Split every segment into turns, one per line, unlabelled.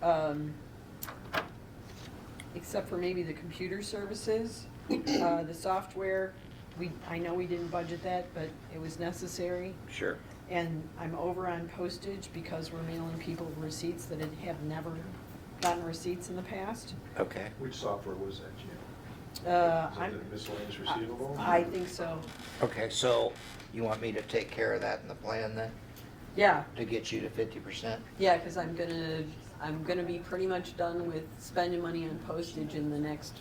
um, except for maybe the computer services, uh, the software, we, I know we didn't budget that, but it was necessary.
Sure.
And I'm over on postage because we're mailing people receipts that have never gotten receipts in the past.
Okay.
Which software was that, Jim?
Uh,
Was
I'm-
it the miscellaneous
I-
receivable?
I think so,
Okay, so you want me to take care of that in the plan then,
yeah,
to get you to fifty percent?
yeah, because I'm gonna, I'm gonna be pretty much done with spending money on postage in the next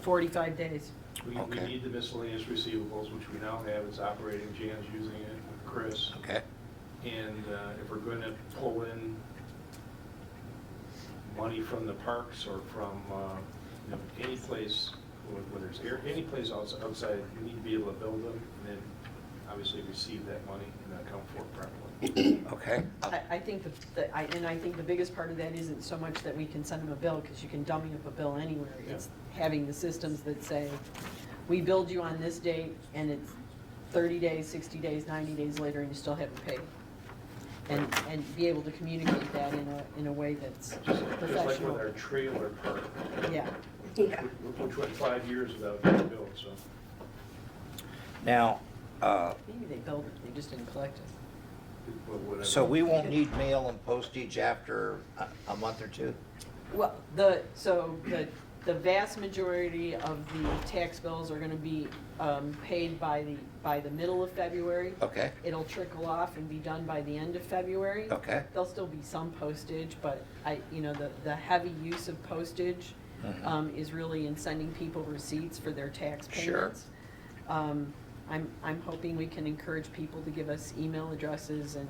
forty-five days.
We, we
Okay.
need the miscellaneous receivables, which we now have, it's operating, Jan's using it with Chris.
Okay,
And uh, if we're going to pull in money from the parks or from, uh, you know, any place, wh- whether it's air, any place outs- outside, we need to be able to build them and then obviously receive that money and account for it properly.
okay.
I, I think that- that, I, and I think the biggest part of that isn't so much that we can send them a bill, because you can dummy up a bill anywhere. It's having the systems that say, we billed you on this date, and it's thirty days, sixty days, ninety days later, and you still haven't paid. And, and be able to communicate that in a, in a way that's
Just just like with
professional.
our trailer park,
Yeah,
Yeah.
which went five years without getting built, so.
Now, uh,
maybe they billed it, they just didn't collect it.
but whatever.
so we won't need mail and postage after a, a month or two?
Well, the, so the, the vast majority of the tax bills are gonna be, um, paid by the, by the middle of February.
Okay,
It'll trickle off and be done by the end of February.
okay.
There'll still be some postage, but I, you know, the, the heavy use of postage
Mhm.
um, is really in sending people receipts for their tax
Sure.
payments. Um, I'm, I'm hoping we can encourage people to give us email addresses and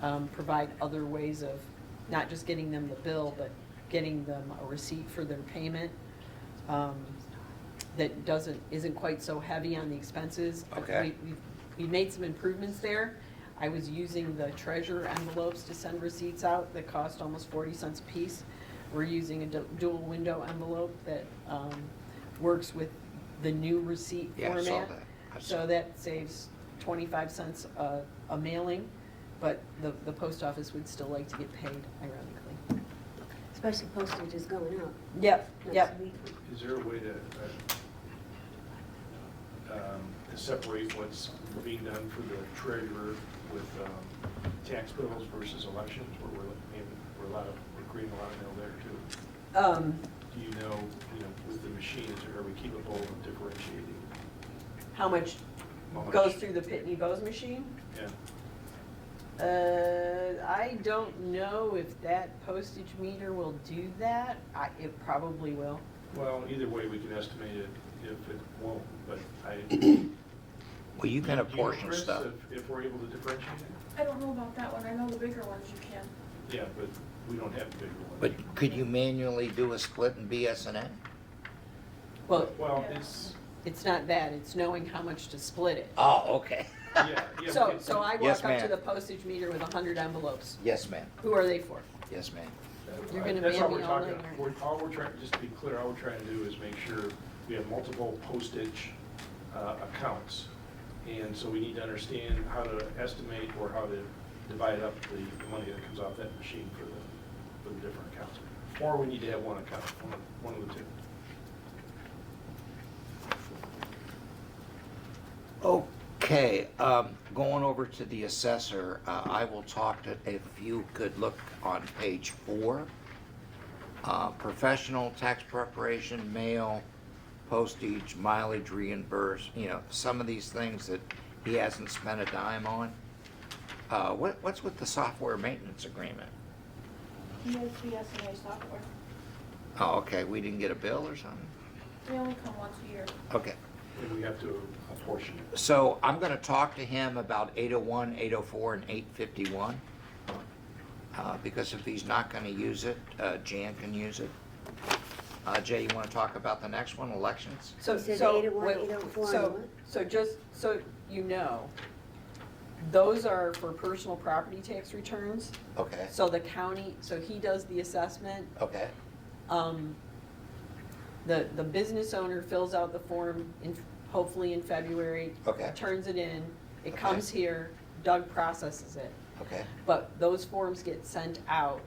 um, provide other ways of not just getting them the bill, but getting them a receipt for their payment um, that doesn't, isn't quite so heavy on the expenses. But
Okay.
we- we- We made some improvements there. I was using the treasurer envelopes to send receipts out that cost almost 40 cents a piece. We're using a du- dual window envelope that um, works with the new receipt
Yeah, I saw
format.
that. I saw-
So that saves 25 cents a a mailing, but the, the post office would still like to get paid ironically.
Especially postage is going up
Yep,
next
yep.
week.
Is there a way to, uh, um, to separate what's being done for the treasurer with um, tax bills versus elections, where we're, maybe we're a lot of, we're creating a lot of mail there too?
Um,
Do you know, you know, with the machines, are we capable of differentiating?
How much
how much?
goes through the Pitney Bowes machine?
Yeah,
Uh, I don't know if that postage meter will do that. I, it probably will.
well, either way, we can estimate it if it won't, but I. You
Well, you can apportion
Chris,
stuff.
if- If we're able to differentiate it?
I don't know about that one. I know the bigger ones you can.
Yeah, but we don't have the bigger one.
But could you manually do a split in BSNA?
Well,
Well, it's,
it's not that, it's knowing how much to split it.
Oh, okay.
yeah, yeah.
So,
but-
so I
Yes,
walk up to
ma'am.
the postage meter with a hundred envelopes.
Yes, ma'am.
Who are they for?
Yes, ma'am.
You're gonna
That's all
ban me
we're
all
talking,
night,
we're, all we're trying, just to be clear, all we're trying to do is make sure we have multiple postage uh, accounts. And so we need to understand how to estimate or how to divide up the the money that comes off that machine for the, for the different accounts. Or we need to have one account, one of- one of the two.
Okay, um, going over to the assessor, uh, I will talk to, if you could look on page four. Uh, professional tax preparation, mail, postage, mileage reimbursed, you know, some of these things that he hasn't spent a dime on. Uh, what, what's with the software maintenance agreement?
He has BSNA software.
Oh, okay, we didn't get a bill or something?
They only come once a year.
Okay.
And we have to apportion it.
So I'm gonna talk to him about 801, 804, and 851. uh, Because if he's not gonna use it, uh, Jan can use it. Uh, Jay, you wanna talk about the next one, elections?
So,
He said
so,
801,
wait,
804,
so-
what?
So just, so you know, those are for personal property tax returns.
Okay,
So the county, so he does the assessment,
okay,
um, the, the business owner fills out the form in, hopefully in February.
Okay.
Turns it in, it
Okay.
comes here, Doug processes it.
okay,
But those forms get sent out